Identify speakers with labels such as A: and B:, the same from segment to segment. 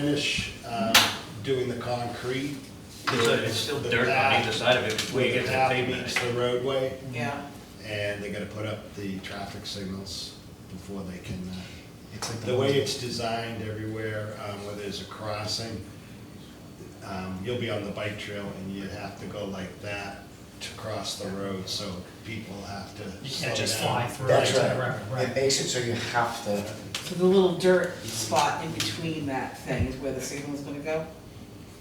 A: finish uh, doing the concrete.
B: So it's still
A: the
B: dirt on
A: path-
B: either side of it before you get to the
A: path
B: pavement.
A: meets the roadway,
C: yeah.
A: and they're gonna put up the traffic signals before they can, uh,
D: It's like
A: the way it's designed everywhere, um, where there's a crossing, um, you'll be on the bike trail and you have to go like that to cross the road, so people have to.
D: You
A: slow
D: can't just
A: down.
D: fly through it
E: That's
D: to the road,
E: right. It
D: right?
E: makes it so you have to,
C: So the little dirt spot in between that thing is where the signal's gonna go?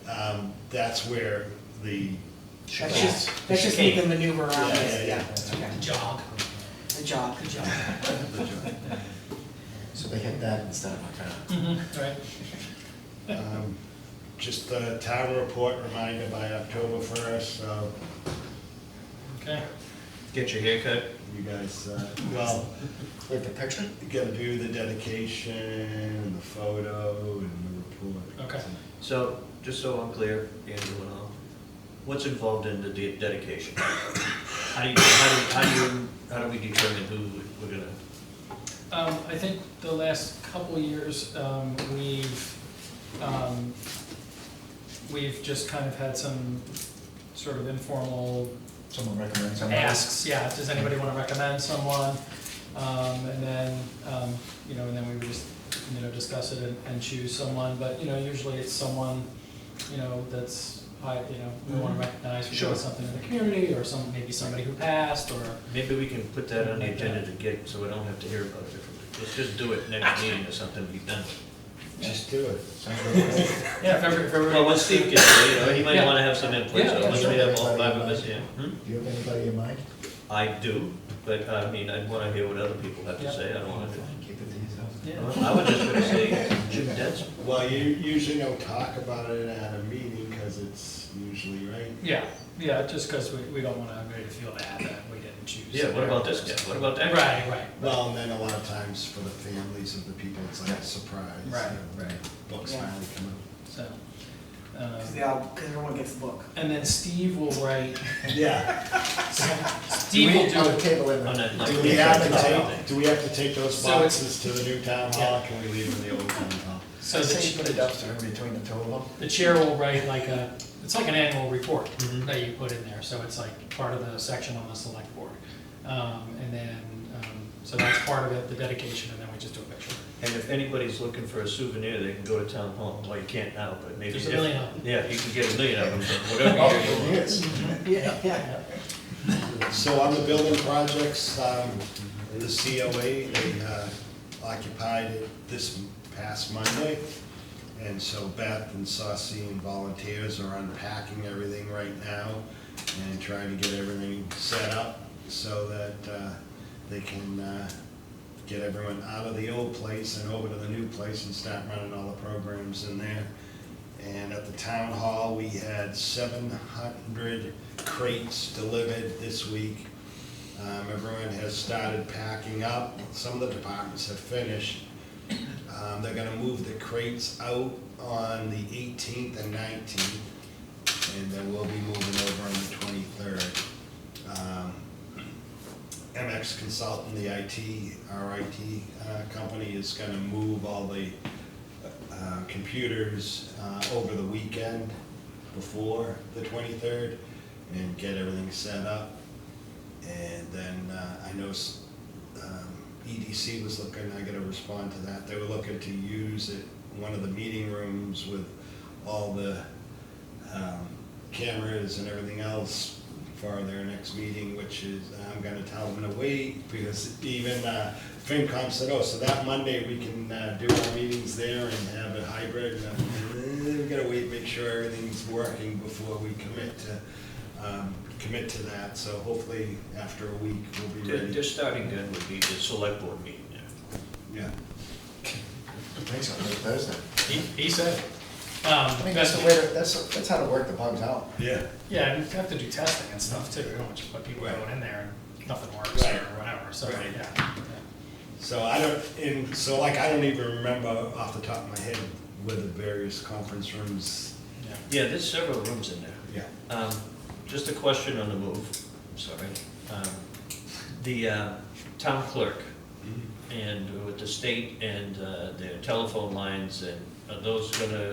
A: Um, that's where the.
C: That's just, that's just making maneuver around
A: Yeah, yeah,
C: it, yeah,
A: yeah.
C: okay,
D: Jog.
C: the jog, the jog.
E: so they hit that instead of my car.
D: Right.
A: Um, Just the town report reminder by October first, so
D: Okay.
B: Get your haircut.
A: you guys, uh, well,
D: Hmm.
E: Wait, the picture?
A: you gotta do the dedication and the photo and the report.
D: Okay.
B: So, just so I'm clear, Andrew and all, what's involved in the de- dedication? How do you, how do, how do, you- how do we determine who we're gonna,
D: Um, I think the last couple of years, um, we've, um, we've just kind of had some sort of informal
E: Someone recommends someone?
D: asks, yeah, does anybody wanna recommend someone? Um, and then, um, you know, and then we would just, you know, discuss it and, and choose someone, but, you know, usually it's someone, you know, that's high, you know, we wanna recognize, we
B: Mm-hmm. Sure.
D: doing something in the community, or some, maybe somebody who passed, or,
B: maybe we can put that on the agenda to get, so we don't have to hear about it differently. Let's just do it next meeting or something, be done with it.
A: Just do it.
D: yeah, if every- if everybody-
B: Well, when Steve gets there, you know, he might
D: Yeah.
B: wanna have some input, so
D: Yeah, yeah,
B: once we
E: sure.
B: have all five of us here. Hmm?
E: Do you have anybody in mind?
B: I do, but I mean, I wanna hear what other people have to
D: Yeah.
B: say, I don't wanna do.
E: Keep it to yourself.
D: Yeah,
B: I was just gonna say, Jim Dentz,
A: Well, you usually don't talk about it at a meeting, cause it's usually, right?
D: yeah, yeah, just cause we, we don't want everybody to feel bad that we didn't choose.
B: yeah, what about this guy, what about that guy?
D: Right, right,
A: Well, and then a lot of times for the families of the people, it's like a surprise. you
D: Right,
A: know,
D: right.
A: Books
C: Yeah.
A: finally come out.
D: so,
C: Cause
D: um,
C: they all, cause everyone gets the book.
D: and then Steve will write,
A: Yeah.
D: Steve will do
E: I'll
D: it.
E: oh, table it.
B: On that, like,
A: Do we have to
B: Yeah.
A: take, do we have to take those
D: So it's-
A: boxes to the new town hall, or can we leave them in the old town hall?
D: So
E: So
D: the
E: say
D: ch-
E: you put a dumpster in between the two of them.
D: The chair will write like a, it's like an annual report
A: Mm-hmm.
D: that you put in there, so it's like part of the section on the select board. Um, and then, um, so that's part of it, the dedication, and then we just do a picture.
B: And if anybody's looking for a souvenir, they can go to town hall, well, you can't now, but maybe.
D: There's a
B: if-
D: million of them.
B: Yeah, you can get a million of them, so
D: Oh.
B: whatever you want.
E: Yes.
C: Yeah, yeah.
A: So on the building projects, um, the COA, they uh, occupied it this past Monday. And so Beth and Saucy and volunteers are unpacking everything right now and trying to get everything set up so that uh, they can uh, get everyone out of the old place and over to the new place and start running all the programs in there. And at the town hall, we had seven hundred crates delivered this week. Um, everyone has started packing up, some of the departments have finished. Um, they're gonna move the crates out on the eighteenth and nineteenth, and then we'll be moving over on the Um, twenty-third. MX Consultant, the IT, our IT uh, company is gonna move all the uh, computers uh, over the weekend before the 23rd and get everything set up. And then uh, I know s- um, EDC was looking, I gotta respond to that, they were looking to use it, one of the meeting rooms with all the um, cameras and everything else for their next meeting, which is, I'm gonna tell them to wait, because even uh, FinCom said, oh, so that Monday, we can uh, do our meetings there and have it hybrid, and I'm, "Eh, we gotta wait, make sure everything's working before we commit to, um, commit to that, so hopefully, after a week, we'll be
B: Their, their
A: ready.
B: starting gun would be the select board meeting there.
A: Yeah.
E: Thanks, on Thursday.
D: He, he said, um,
E: I mean, that's
D: best
E: the way, to- that's, that's how to work the bugs out.
A: Yeah.
D: yeah, and you have to do testing and stuff too, you don't want to just put people
A: Right.
D: going in there and nothing works or
A: Right.
D: whatever, so,
A: Right.
D: yeah.
A: So I don't, and so like, I don't even remember off the top of my head where the various conference rooms,
D: yeah.
B: Yeah, there's several rooms in there.
A: yeah.
B: Um, just a question on the move, I'm sorry. Um, The, uh, town clerk and with the state and, uh, their telephone lines and Are those gonna